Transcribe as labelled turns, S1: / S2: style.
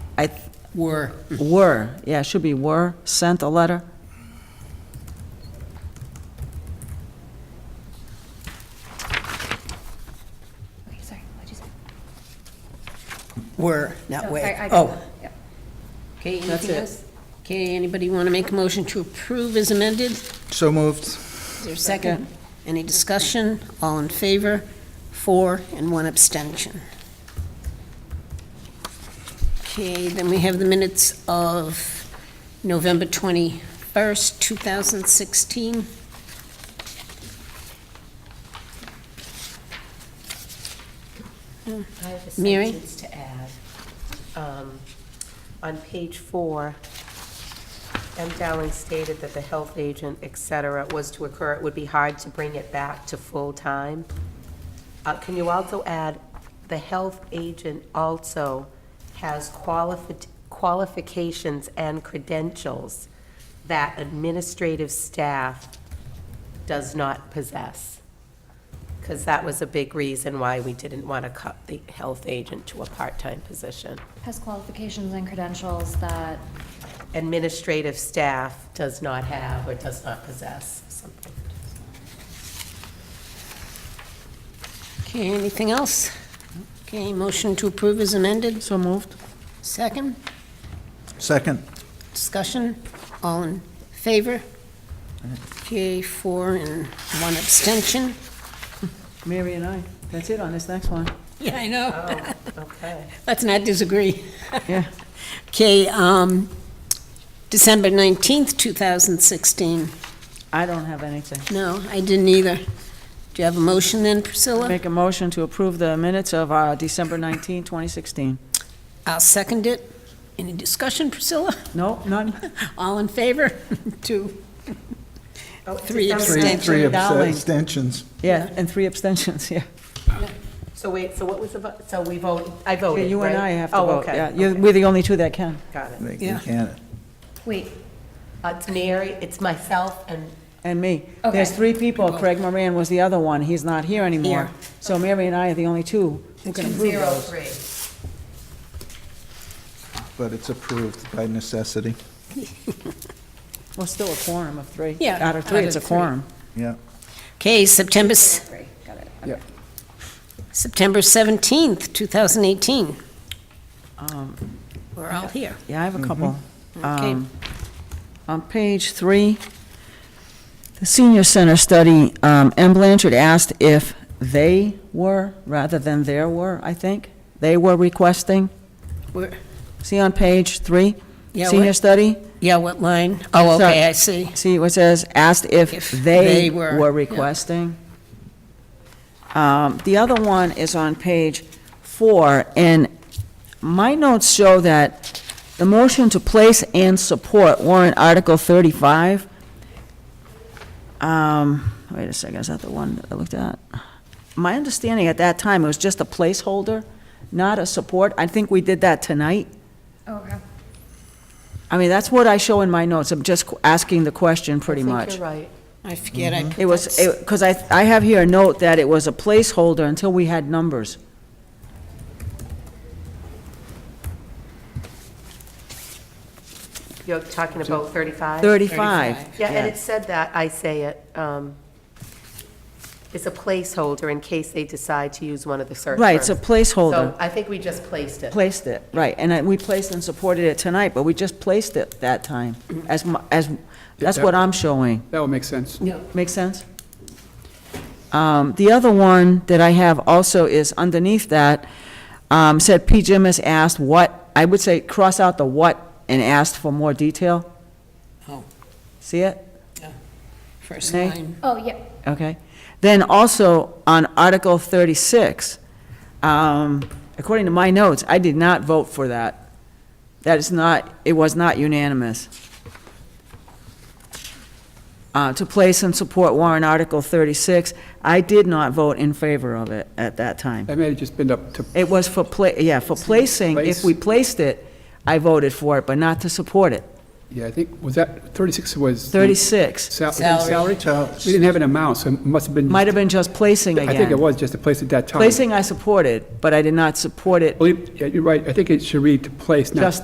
S1: I,
S2: were.
S1: were, yeah, it should be were, sent a letter.
S3: Okay, sorry, what'd you say?
S2: Were, not
S3: No,
S2: way.
S3: I- I got
S2: Oh,
S3: that, yep.
S2: okay,
S1: That's
S2: anything
S1: it.
S2: else? Okay, anybody want to make a motion to approve as amended? Is
S4: So moved.
S2: there a second? Any discussion? All in favor? Four and one abstention. Okay, then we have the minutes of November 21st, 2016.
S5: I have a
S2: Mary?
S5: sentence to add. Um, On page four, M. Dowling stated that the health agent, et cetera, was to occur, it would be hard to bring it back to full-time. Uh, Can you also add, the health agent also has qualifi- qualifications and credentials that administrative staff does not possess? Because that was a big reason why we didn't want to cut the health agent to a part-time position.
S3: Has qualifications and credentials that,
S5: Administrative staff does not have or does not possess something.
S2: Okay, anything else? Okay, motion to approve is amended. So moved. Second,
S4: Second.
S2: discussion, all in favor? Okay, four and one abstention.
S1: Mary and I, that's it on this next one.
S2: Yeah, I know.
S5: Oh, Okay.
S2: Let's not disagree.
S1: Yeah.
S2: Okay, um, December 19th, 2016.
S1: I don't have anything.
S2: No, I didn't either. Do you have a motion then, Priscilla?
S1: Make a motion to approve the minutes of uh, December 19, 2016.
S2: I'll second it. Any discussion, Priscilla?
S1: No, none?
S2: All in favor? Two.
S5: Oh,
S2: Three
S5: December-
S4: Three, three
S1: Dowling.
S4: abstentions.
S1: Yeah, and three abstentions, yeah.
S5: So wait, so what was the, vote? so we voted, I voted,
S1: Yeah,
S5: right?
S1: You and I have to
S5: Oh,
S1: vote,
S5: okay,
S1: yeah. You're-
S5: okay,
S1: We're the only two that can.
S5: Got it.
S4: They they
S2: Yeah.
S4: can't.
S3: wait,
S5: Uh, It's Mary, it's myself, and
S1: And me.
S3: Okay.
S1: There's three people. Craig Moran was the other one. He's not here anymore.
S2: Here.
S1: So Mary and I are the only two who can approve
S5: zero
S1: those.
S5: three.
S4: But it's approved by necessity.
S1: Well, still a quorum of three.
S2: Yeah,
S1: Out of three,
S2: out
S1: it's a
S2: of three.
S1: quorum.
S4: Yeah.
S2: Okay, September, s-
S3: three, got it.
S2: September 17th, 2018.
S1: Um,
S2: We're all here.
S1: Yeah, I have a couple.
S2: Okay.
S1: Um, On page three, the senior center study, um, M. Blanchard asked if they were, rather than there were, I think, they were requesting.
S2: We're-
S1: See on page three?
S2: Yeah,
S1: Senior
S2: what-
S1: study?
S2: Yeah, what line? Oh,
S1: So-
S2: okay, I see.
S1: See, it says, asked if
S2: If
S1: they
S2: they were,
S1: were
S2: yeah.
S1: requesting. Um, The other one is on page four, and my notes show that the motion to place and support warrant Article 35. Um, Wait a second, is that the one that I looked at? My understanding at that time, it was just a placeholder, not a support. I think we did that tonight.
S3: Oh, okay.
S1: I mean, that's what I show in my notes. I'm just asking the question, pretty
S5: I
S1: much.
S5: think you're right.
S2: I forget I put
S1: It was,
S2: that s-
S1: because I, I have here a note that it was a placeholder until we had numbers.
S5: You're talking about 35?
S1: 35.
S5: Yeah, and it said that, I say it, um, it's a placeholder in case they decide to use one of the search
S1: Right, it's a
S5: terms.
S1: placeholder.
S5: So I think we just placed it.
S1: Placed it, right, and I- we placed and supported it tonight, but we just placed it that time, as, mu- as, that's what I'm showing.
S6: That would make sense.
S1: Make sense? Um, The other one that I have also is underneath that, um, said P. Jim has asked what, I would say cross out the what and asked for more detail.
S2: Oh.
S1: See it?
S2: first
S1: Nay.
S2: line.
S3: Oh, yeah,
S1: Okay. Then also, on Article 36, um, according to my notes, I did not vote for that. That is not, it was not unanimous. Uh, To place and support warrant Article 36, I did not vote in favor of it at that time.
S6: That may have just been up to,
S1: It was for, pla- yeah, for placing, if we placed it, I voted for it, but not to support it.
S6: yeah, I think, was that, 36 was? the
S1: 36,
S6: sal-
S2: Salary.
S6: Salary? We didn't have an amount, so it must have been.
S1: might have been just placing again.
S6: I think it was just a place at that time.
S1: Placing I supported, but I did not support it
S6: Believe- yeah, You're right, I think it should read to place, not
S1: Just